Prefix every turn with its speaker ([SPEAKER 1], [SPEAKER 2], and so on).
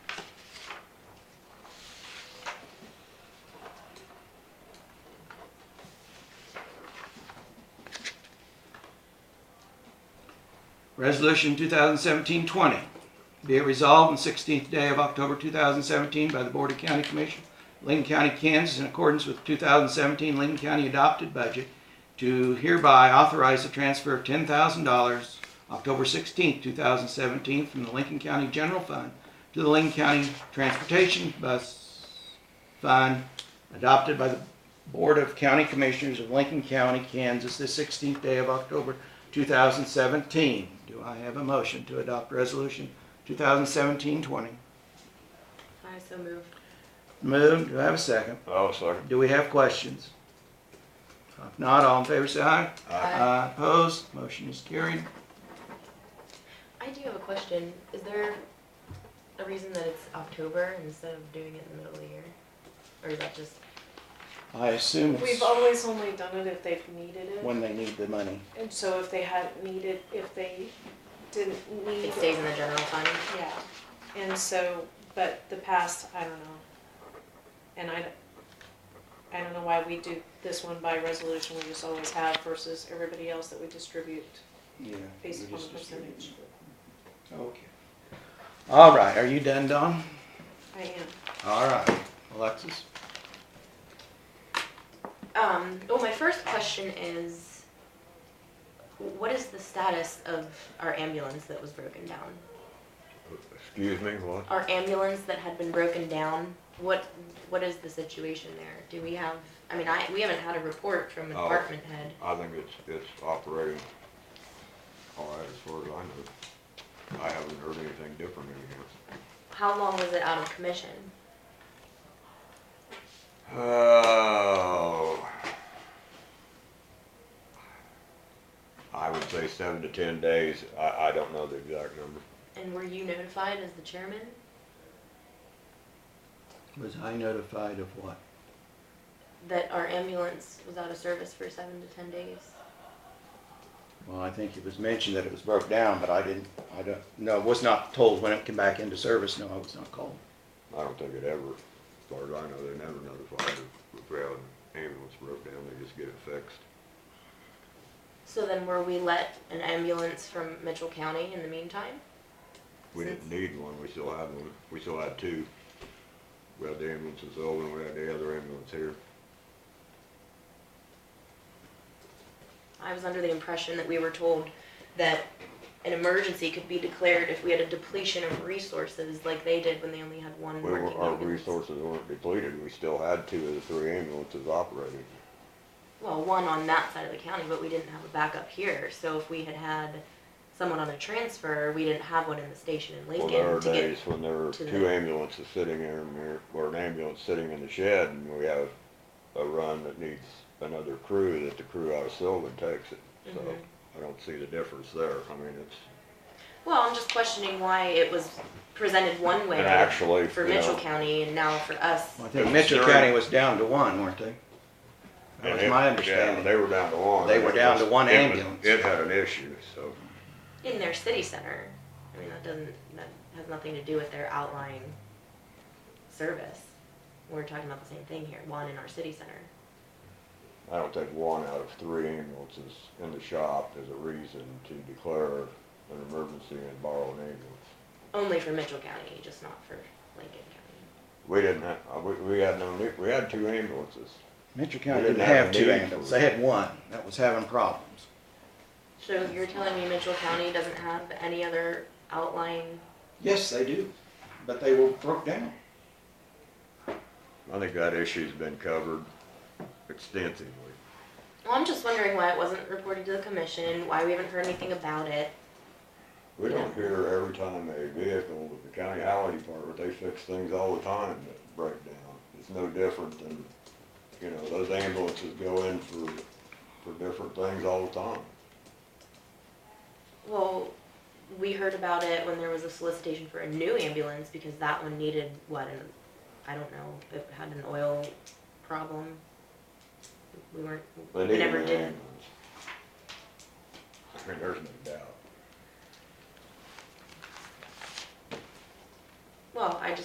[SPEAKER 1] Resolution 2017-20, be it resolved on 16th day of October 2017 by the Board of County Commission, Lincoln County, Kansas, in accordance with 2017 Lincoln County adopted budget, to hereby authorize the transfer of $10,000 October 16th, 2017, from the Lincoln County General Fund to the Lincoln County Transportation Bus Fund adopted by the Board of County Commissioners of Lincoln County, Kansas, the 16th day of October 2017. Do I have a motion to adopt Resolution 2017-20?
[SPEAKER 2] I so move.
[SPEAKER 1] Moved. Do I have a second?
[SPEAKER 3] I'll second.
[SPEAKER 1] Do we have questions? If not, all in favor say aye.
[SPEAKER 2] Aye.
[SPEAKER 1] Opposed? Motion is carried.
[SPEAKER 2] I do have a question. Is there a reason that it's October instead of doing it in the middle of the year? Or is that just,
[SPEAKER 1] I assume it's
[SPEAKER 4] We've always only done it if they've needed it,
[SPEAKER 1] when they need the money.
[SPEAKER 4] and so if they hadn't needed, if they didn't need.
[SPEAKER 2] it stays in the general fund?
[SPEAKER 4] Yeah, and so, but the past, I don't know. And I, don't- I don't know why we do this one by resolution, we just always have versus everybody else that we distribute
[SPEAKER 1] Yeah.
[SPEAKER 4] based
[SPEAKER 1] we
[SPEAKER 4] upon the
[SPEAKER 1] just distribute.
[SPEAKER 4] percentage.
[SPEAKER 1] Okay. All right, are you done, Don?
[SPEAKER 4] I am.
[SPEAKER 1] All right, Alexis?
[SPEAKER 2] Um, well, my first question is, what is the status of our ambulance that was broken down?
[SPEAKER 3] Excuse me, what?
[SPEAKER 2] Our ambulance that had been broken down, what, what is the situation there? Do we have, I mean, I, we haven't had a report from a
[SPEAKER 3] Oh.
[SPEAKER 2] department head.
[SPEAKER 3] I think it's, it's operating all right as far as I know. I haven't heard anything different in
[SPEAKER 2] How long was it out of commission?
[SPEAKER 3] here. Oh. I would say seven to ten days. I, I don't know the exact number.
[SPEAKER 2] And were you notified as the chairman?
[SPEAKER 1] Was I notified of what?
[SPEAKER 2] that our ambulance was out of service for seven to ten days.
[SPEAKER 1] Well, I think it was mentioned that it was broke down, but I didn't, I don't, no, was not told when it came back into service, no, I was not called.
[SPEAKER 3] I don't think it ever, as far as I know, they never notified if, if we had an ambulance broke down, they just get it fixed.
[SPEAKER 2] So then were we let an ambulance from Mitchell County in the meantime?
[SPEAKER 3] We didn't need one, we still had one, we still had two. We had the ambulance in Sylvan, we had the other ambulance here.
[SPEAKER 2] I was under the impression that we were told that an emergency could be declared if we had a depletion of resources like they did when they only had one
[SPEAKER 3] We
[SPEAKER 2] working
[SPEAKER 3] were, our
[SPEAKER 2] ambulance.
[SPEAKER 3] resources weren't depleted, we still had two of the three ambulances operating.
[SPEAKER 2] Well, one on that side of the county, but we didn't have a backup here. So if we had had someone on a transfer, we didn't have one in the station in
[SPEAKER 3] Well, there are
[SPEAKER 2] Lincoln to
[SPEAKER 3] days
[SPEAKER 2] get.
[SPEAKER 3] when there are
[SPEAKER 2] to
[SPEAKER 3] two
[SPEAKER 2] the-
[SPEAKER 3] ambulances sitting here and we're, or an ambulance sitting in the shed and we have a run that needs another crew, that the crew out of Sylvan takes it. So
[SPEAKER 2] Mhm.
[SPEAKER 3] I don't see the difference there, I mean, it's,
[SPEAKER 2] Well, I'm just questioning why it was presented one way
[SPEAKER 3] and actually,
[SPEAKER 2] for
[SPEAKER 3] you
[SPEAKER 2] Mitchell
[SPEAKER 3] know,
[SPEAKER 2] County and now for us.
[SPEAKER 1] I think Mitchell County was down to one, weren't they? That
[SPEAKER 3] And
[SPEAKER 1] was
[SPEAKER 3] it-
[SPEAKER 1] my
[SPEAKER 3] yeah,
[SPEAKER 1] understanding.
[SPEAKER 3] They were down to one.
[SPEAKER 1] They were down to one
[SPEAKER 3] It was-
[SPEAKER 1] ambulance.
[SPEAKER 3] It had an issue, so,
[SPEAKER 2] in their city center. I mean, that doesn't, that has nothing to do with their outlying service. We're talking about the same thing here, one in our city center.
[SPEAKER 3] I don't think one out of three ambulances in the shop is a reason to declare an emergency and borrow an ambulance.
[SPEAKER 2] Only for Mitchell County, just not for Lincoln County.
[SPEAKER 3] We didn't have, uh, we, we had no, need- we had two ambulances.
[SPEAKER 1] Mitchell County
[SPEAKER 3] We
[SPEAKER 1] didn't
[SPEAKER 3] didn't
[SPEAKER 1] have
[SPEAKER 3] have
[SPEAKER 1] two
[SPEAKER 3] need for
[SPEAKER 1] ambulance,
[SPEAKER 3] it.
[SPEAKER 1] they had one that was having problems.
[SPEAKER 2] So you're telling me Mitchell County doesn't have any other outlying,
[SPEAKER 1] Yes, they do, but they were broke down.
[SPEAKER 3] I think that issue's been covered extensively.
[SPEAKER 2] well, I'm just wondering why it wasn't reported to the commission, why we haven't heard anything about it.
[SPEAKER 3] We don't hear every time a vehicle, with the county highway department, they fix things all the time that break down. It's no different than, you know, those ambulances go in for, for different things all the time.
[SPEAKER 2] Well, we heard about it when there was a solicitation for a new ambulance because that one needed what? An, I don't know. It had an oil problem. We weren't.
[SPEAKER 3] They
[SPEAKER 2] we
[SPEAKER 3] need
[SPEAKER 2] never
[SPEAKER 3] an
[SPEAKER 2] did.
[SPEAKER 3] ambulance. I mean, there's no doubt.
[SPEAKER 2] Well, I just.